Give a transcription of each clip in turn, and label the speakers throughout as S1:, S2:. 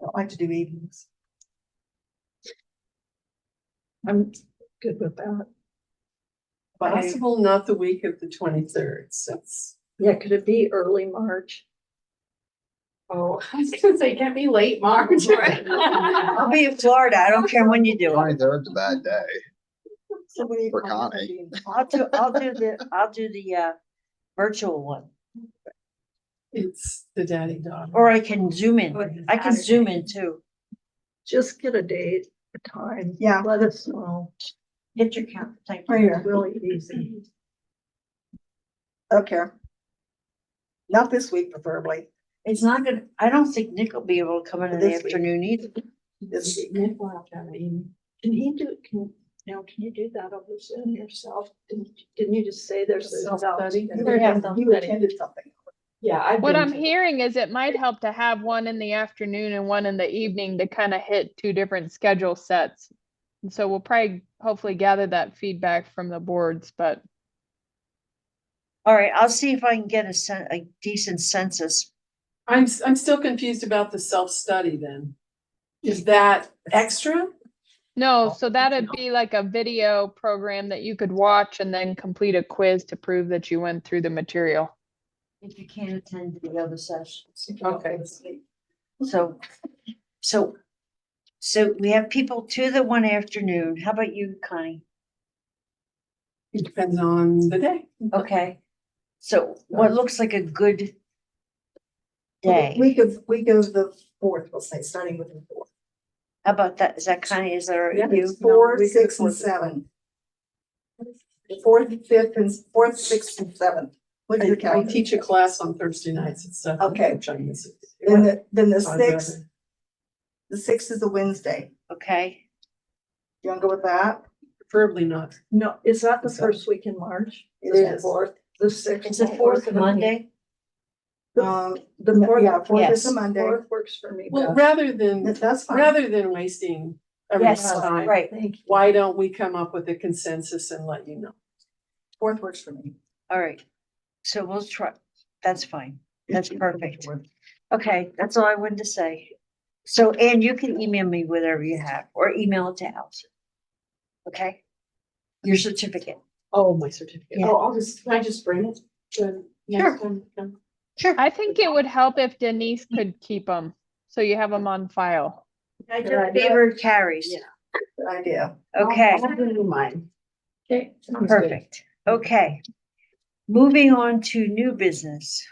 S1: don't like to do evenings.
S2: I'm good with that.
S1: But
S3: Possible not the week of the twenty-third, since.
S2: Yeah, could it be early March?
S3: Oh, I was gonna say, can't be late March, right?
S1: I'll be in Florida. I don't care when you do it.
S4: Twenty-third's a bad day.
S1: So we-
S4: For Connie.
S1: I'll do, I'll do the, I'll do the uh virtual one,
S3: It's the daddy daughter.
S1: or I can zoom
S5: Or
S1: in.
S5: the
S1: I can zoom in too.
S2: Just get a date, a time.
S5: Yeah. Oh,
S2: Let us know.
S1: Get your count. Thank
S5: Right
S1: you.
S2: It's
S5: here,
S2: really easy.
S5: okay. Not this week preferably,
S1: It's not gonna, I don't think Nick will be able to come in in the
S5: This week.
S1: afternoon either.
S5: this week,
S3: Nick will have to have an evening.
S2: Can he do, can, now, can you do that over Zoom yourself? Didn't, didn't you just say there's? a-
S3: Self-study?
S5: you
S2: Yeah, self-study.
S5: attended something.
S3: Yeah, I've
S6: What
S3: been
S6: I'm
S3: to-
S6: hearing is it might help to have one in the afternoon and one in the evening to kind of hit two different schedule sets. And so we'll probably hopefully gather that feedback from the boards, but
S1: All right, I'll see if I can get a sen- a decent census.
S3: I'm, s- I'm still confused about the self-study then. Is that extra?
S6: no, so that'd be like a video program that you could watch and then complete a quiz to prove that you went through the material.
S1: If you can't attend the other sessions.
S3: Okay.
S1: So, so, so we have people to the one afternoon. How about you, Connie?
S3: It depends on the day.
S1: Okay, so what looks like a good day?
S5: Week of, week of the fourth, we'll say, starting with the fourth.
S1: How about that? Is that Connie? Is there
S5: Yeah,
S1: you?
S5: Four,
S3: we could
S5: six and
S3: afford to-
S5: seven. The fourth, fifth and fourth, sixth and seventh. Look at
S3: I,
S5: your
S3: I
S5: calendar.
S3: teach a class on Thursday nights and stuff.
S5: Okay.
S3: which I miss it.
S5: Then the, then the
S3: So I'd rather-
S5: sixth, the sixth is a Wednesday.
S1: Okay,
S5: You wanna go with that?
S3: Preferably not.
S2: No, is that the
S3: So-
S2: first week in March?
S5: It
S2: Is the
S5: is.
S2: Fourth, the sixth.
S1: it's the fourth
S2: and the-
S1: Monday.
S5: Um,
S2: The
S5: no,
S2: fourth,
S5: yeah, fourth is
S1: yes.
S5: a Monday.
S2: fourth works for me.
S3: Well,
S2: best.
S3: rather than,
S5: That- That's fine.
S3: rather than wasting everyone's
S1: Yes,
S3: time.
S1: right.
S2: Thank you.
S3: Why don't we come up with a consensus and let you know?
S5: Fourth works for me.
S1: All right. So we'll try. That's fine. That's perfect. Okay, that's all I wanted to say. So Anne, you can email me whatever you have or email it to Allison. Okay? Your certificate.
S3: Oh, my certificate.
S1: Yeah.
S3: Oh, I'll just, can I just bring it? to next time?
S1: Sure.
S6: I think it would help if Denise could keep them, so you have them on file.
S1: I
S3: Good
S1: just
S3: idea.
S1: favored carries.
S3: Yeah.
S5: Good idea.
S7: Oh,
S1: Okay,
S3: I'll bring you mine. Okay. sounds good.
S1: perfect. Okay. Moving on to new business.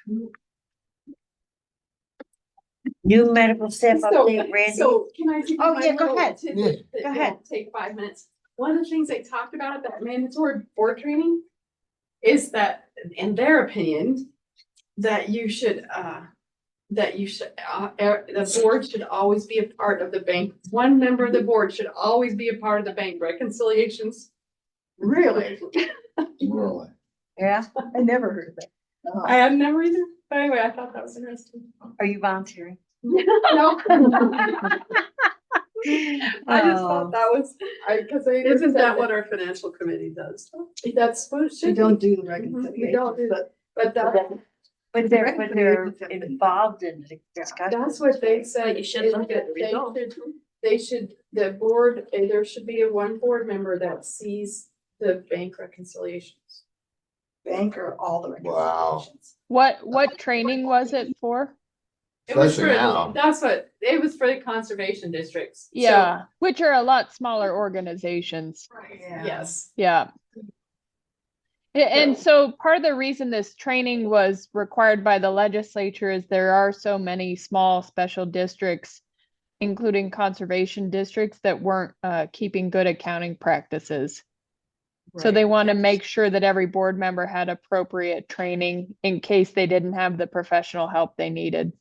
S1: New medical staff
S7: So-
S1: update, Randy.
S7: So can I? give you
S1: Oh,
S7: my
S1: yeah, go
S7: little
S1: ahead.
S7: tidbit
S4: Yeah.
S7: that
S1: Go
S7: will
S1: ahead.
S7: Take five minutes. One of the things they talked about at that mandatory board training is that, in their opinion, that you should, uh, that you should, uh, er, the board should always be a part of the bank. One member of the board should always be a part of the bank reconciliations.
S5: Really?
S4: Really.
S1: Yeah,
S5: I never heard that. Uh-huh.
S7: I had never either, but anyway, I thought that was interesting.
S1: are you volunteering?
S7: No. I just
S1: Oh.
S7: thought that was, I, cause I.
S3: Isn't
S7: said
S3: that what our financial committee does?
S7: That's what it should
S5: We
S7: be.
S5: don't do the
S7: We don't do
S5: reconciliation,
S7: that, but that,
S1: But they're, but they're
S5: Recommended to-
S1: involved in the discussion.
S7: that's what they said.
S2: You should
S7: is
S2: look
S7: that
S2: at the
S7: they
S2: result.
S7: should- They should, the board, eh, there should be a one board member that sees the bank reconciliations.
S5: bank or all the
S4: Wow.
S5: reconciliations.
S6: What, what training was it for?
S7: It was
S4: Especially
S7: for-
S4: now.
S7: That's what, it was for the conservation districts. So-
S6: Yeah, which are a lot smaller organizations.
S5: Yeah.
S7: Yes.
S6: Yeah. A- And so part of the reason this training was required by the legislature is there are so many small special districts, including conservation districts that weren't uh, keeping good accounting practices. So they want to make sure that every board member had appropriate training in case they didn't have the professional help they needed.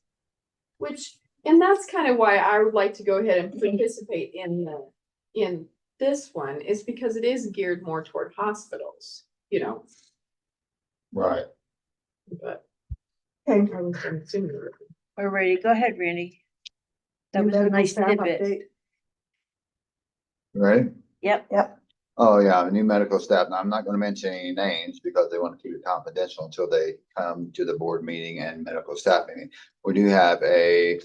S7: Which, and that's kind of why I would like to go ahead and participate in the, in this one, is because it is geared more toward hospitals, you know,
S4: Right.
S7: but.
S5: Okay.
S7: I was gonna assume you were-
S1: We're ready. Go ahead, Randy. That
S5: New
S1: was a
S5: medical
S1: nice
S5: staff
S1: tidbit.
S5: update.
S4: Ready?
S1: Yep.
S4: Oh, yeah, the new medical staff. Now, I'm not gonna mention any names because they want to keep it confidential until they come to the board meeting and medical staff meeting. We do have a